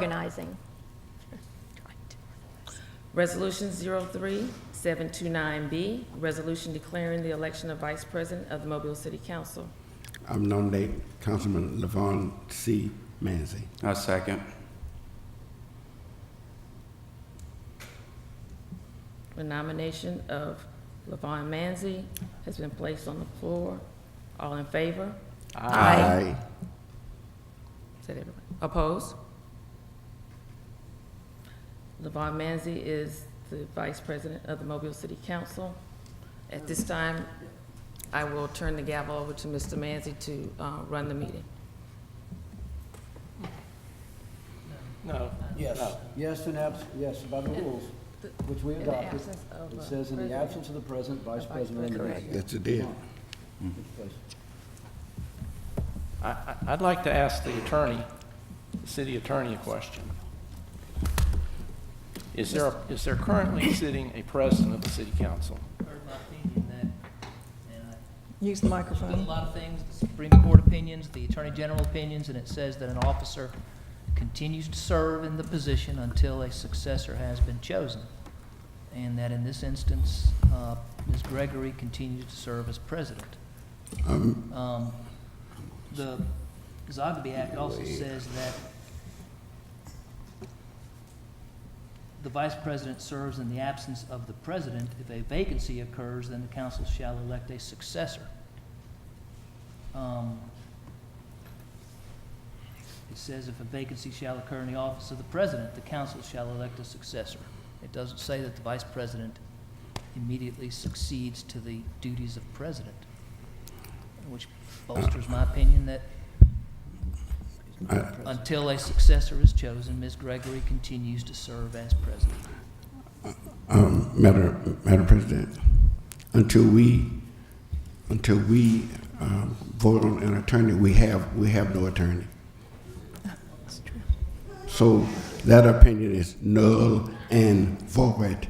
organizing. Resolution 03729B, resolution declaring the election of Vice President of the Mobile City Council. I nominate Councilman Levon C. Manzi. I second. The nomination of Levon Manzi has been placed on the floor. All in favor? Aye. Said everybody. Opposed? Levon Manzi is the Vice President of the Mobile City Council. At this time, I will turn the gavel over to Mr. Manzi to uh, run the meeting. No. Yes, yes, and abs, yes, by the rules, which we in the adopted. absence of uh, It a says in the president. absence of the president, vice The vice president. and the president. vice- That's a deal. Yes. I, I- I'd like to ask the attorney, the city attorney a question. Is there, a- is there currently sitting a president of the city council? heard my opinion that, and I, Use the there's been a microphone. lot of things, the Supreme Court opinions, the Attorney General opinions, and it says that an officer continues to serve in the position until a successor has been chosen. And that in this instance, uh, Ms. Gregory continues to serve as president. Um, The Zogby Act also says that the vice president serves in the absence of the president. If a vacancy occurs, then the council shall elect a successor. Um, It says if a vacancy shall occur in the office of the president, the council shall elect a successor. It doesn't say that the vice president immediately succeeds to the duties of president, which bolsters my opinion that until a successor is chosen, Ms. Gregory continues to serve as president. Um, Madam, Madam President, until we, until we, um, vote on an attorney, we have, we have no attorney. So that opinion is null and void.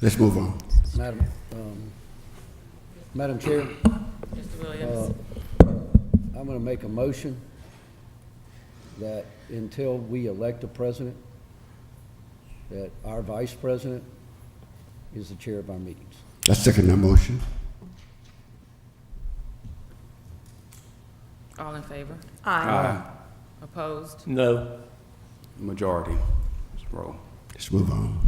Let's move on. Madam, um, Madam Chair, Mr. uh, Williams? I'm gonna make a motion that until we elect a president, that our vice president is the chair of our meetings. I second that motion. All in favor? Aye. Opposed? No. Majority. Let's roll. Let's move on.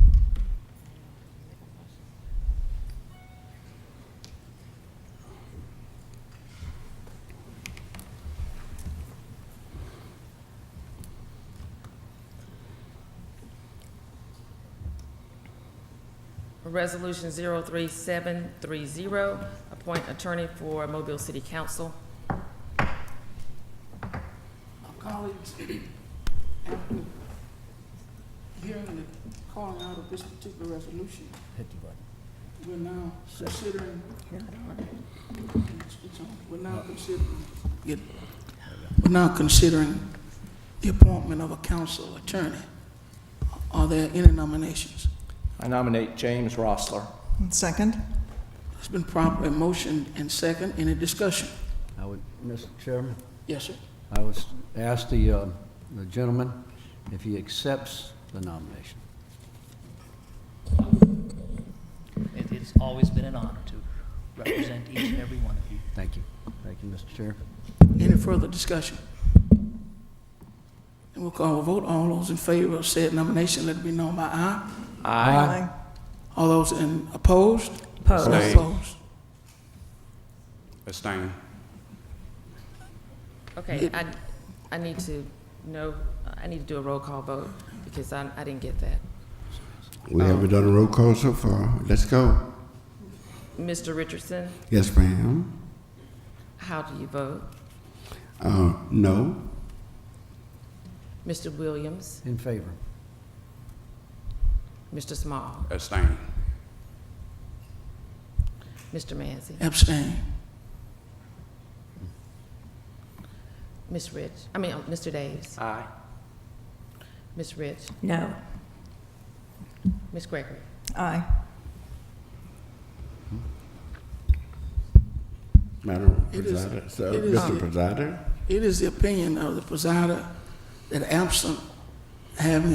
Resolution 03730, appoint attorney for Mobile City Council. colleagues, hearing the calling out of this particular resolution, Hit the button. we're now considering, It's- it's on. we're now considering, get- we're now considering the appointment of a council attorney. Are there any nominations? I nominate James Rossler. And Second? It's been properly motioned and second, any discussion? I would, Mr. Chairman? Yes, sir. I would ask the, uh, the gentleman if he accepts the nomination. It, it's always been an honor to represent each and every one of you. Thank you. Thank you, Mr. Chair. Any further discussion? And we'll call a vote, all those in favor of said nomination, let it be known by aye. Aye. All those in opposed? Opposed. Aye. Opposed. Abstain. Okay, I, I need to know, I need to do a roll call vote because I, I didn't get that. We haven't done a roll call so far. Let's go. Mr. Richardson, Yes, ma'am. how do you vote? Uh, no. Mr. Williams, In favor? Mr. Small, Abstain. Mr. Manzi, Abstain. Ms. Rich, I mean, uh, Mr. Davis, Aye. Ms. Rich, No. Ms. Gregory. Aye. Madam It is- Presider, so, it is- Mr. Presider? It is the opinion of the presider that absent having a